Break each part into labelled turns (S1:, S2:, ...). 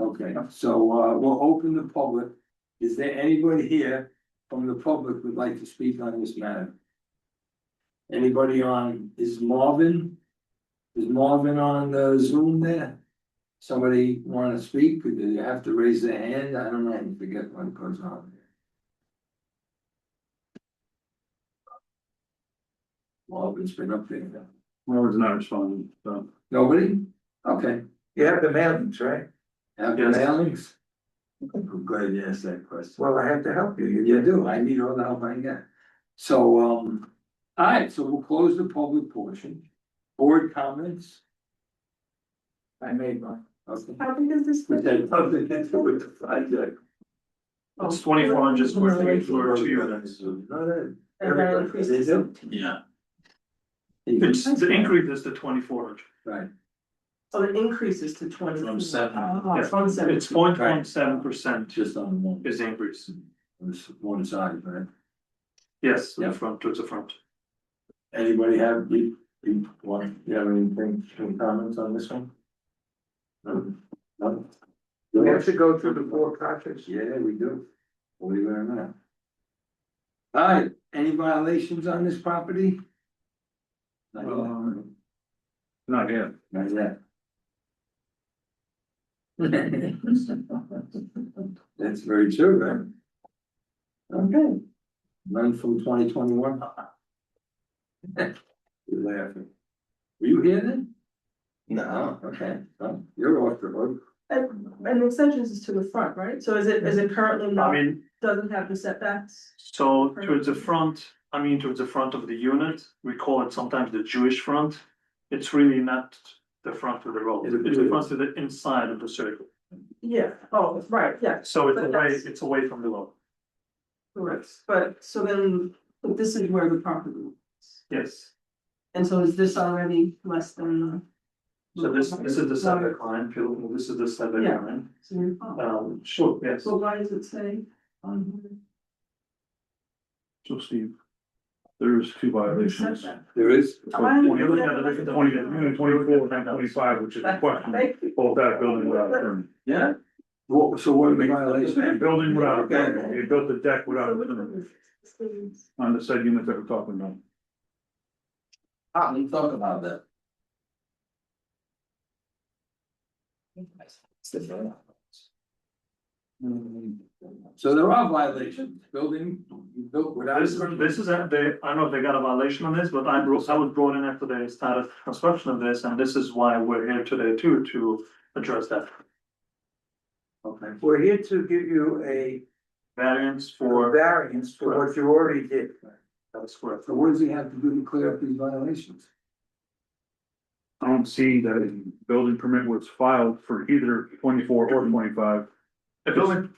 S1: Okay, so uh, we'll open the public. Is there anybody here from the public would like to speak on this matter? Anybody on, is Marvin? Is Marvin on the Zoom there? Somebody wanna speak? Do you have to raise their hand? I don't know, I forget what goes on. there. Marvin's been up there.
S2: Robert's not responding, so.
S1: Nobody? Okay.
S3: You have the mailings, right?
S1: Have the
S2: Yes.
S1: mailings? I'm glad you asked that question.
S3: Well, I have to help you.
S1: You do, I need all the help I can get. So, um, all right, so we'll close the public portion. Board comments?
S3: I made one.
S1: Okay.
S4: How big is this?
S1: With that,
S3: Nothing to do with the project.
S2: It's twenty-four inches worth of for two units.
S4: Everybody increases.
S2: Yeah. It's, the increase is to twenty-four inch.
S1: Right,
S4: So Oh, it increases to twenty.
S2: From seven.
S4: Oh,
S2: Yeah.
S4: from seven.
S2: It's point one seven percent
S1: just on one,
S2: is the increase.
S1: on this one side, right?
S2: Yes,
S1: Yeah.
S2: the front, towards the front.
S1: Anybody have, you, you want, you have anything, any comments on this one? No, no?
S3: We have to go through the four projects.
S1: Yeah, we do. Believe it or not. All right, any violations on this property? Not yet.
S2: Um, Not yet.
S1: Not yet. That's very true, right? Okay. Learn from twenty twenty one. You're laughing. Were you here then? No. Okay, well, you're off the hook.
S4: And, and the extensions is to the front, right? So is it, is it currently
S2: I
S4: not,
S2: mean,
S4: doesn't have the setbacks?
S2: So towards the front, I mean towards the front of the unit, we call it sometimes the Jewish front. It's really not the front of the road,
S1: It's a-
S2: it's the front to the inside of the circle.
S4: Yeah, oh, right, yeah,
S2: So it's
S4: But
S2: away,
S4: that's-
S2: it's away from the road,
S4: correct. But, so then, but this is where the property. is.
S2: yes.
S4: And so is this already less than? the-
S2: So this, this is the setback line, if you look, this is the setback
S4: Yeah.
S2: line.
S4: So you're fine.
S2: Um, sure, yes.
S4: So why does it say on
S2: So Steve.
S5: There's two
S4: here?
S5: violations.
S4: setback?
S1: There is,
S4: Why?
S2: When you look at the- the-
S5: Twenty, twenty-four and twenty-five, which is a question,
S4: Thank you.
S5: both that building without a permit.
S1: yeah? What, so what are the
S5: And
S1: violations?
S5: Building without a permit, you built a deck without a permit on the said unit that we're talking about.
S1: Ah, we talk about that. So there are violations, building, you built without.
S2: This, is- this is, a- they, I don't know if they got a violation on this, but I brought, I was brought in after they started construction of this, and this is why we're here today too, to address that.
S1: Okay,
S3: We're here to give you a
S2: Variance for,
S3: variance for what you already did.
S2: that's correct.
S1: so what does he have to do to clear up these violations?
S5: I don't see that a building permit was filed for either twenty-four or twenty-five.
S2: Mm-hmm. A building,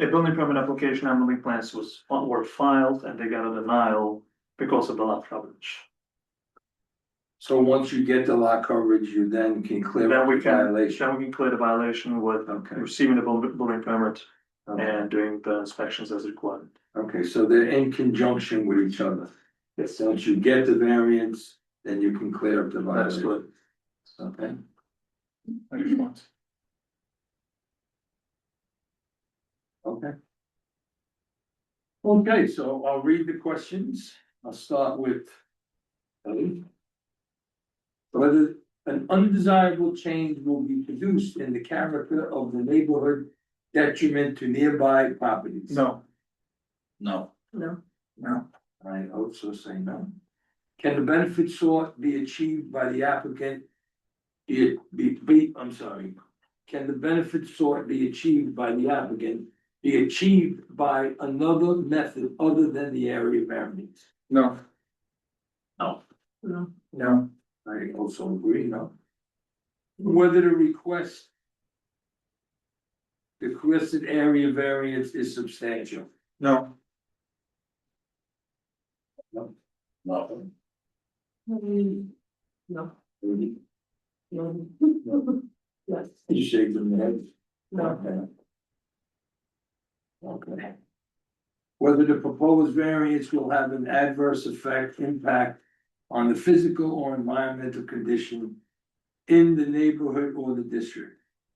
S2: a building permit application and building plans was, were filed and they got a denial because of the lot coverage.
S1: So once you get the lot coverage, you then can clear
S2: Then
S1: up
S2: we
S1: the
S2: can,
S1: violation.
S2: then we can clear the violation with
S1: Okay,
S2: receiving the buil- building permit
S1: okay,
S2: and doing the inspections as required.
S1: okay, so they're in conjunction with each other.
S2: Yes.
S1: Once you get the variance, then you can clear up the
S2: That's
S1: violation.
S2: good.
S1: Okay, okay. Okay, so I'll read the questions. I'll start with. Ellie. Whether an undesirable change will be produced in the character of the neighborhood detriment to nearby properties?
S2: No,
S1: No.
S4: No.
S3: No.
S1: I also say no. Can the benefit sought be achieved by the applicant? Be, be, be, I'm sorry. Can the benefit sought be achieved by the applicant be achieved by another method other than the area variance?
S3: No.
S4: No.
S3: No.
S1: I also agree, no. Whether the request. The requested area variance is substantial.
S3: No.
S1: No.
S4: Mm, No.
S1: You
S4: No. Yes,
S1: shake them head.
S4: no,
S1: Okay. Whether the proposed variance will have an adverse effect, impact on the physical or environmental condition in the neighborhood or the district.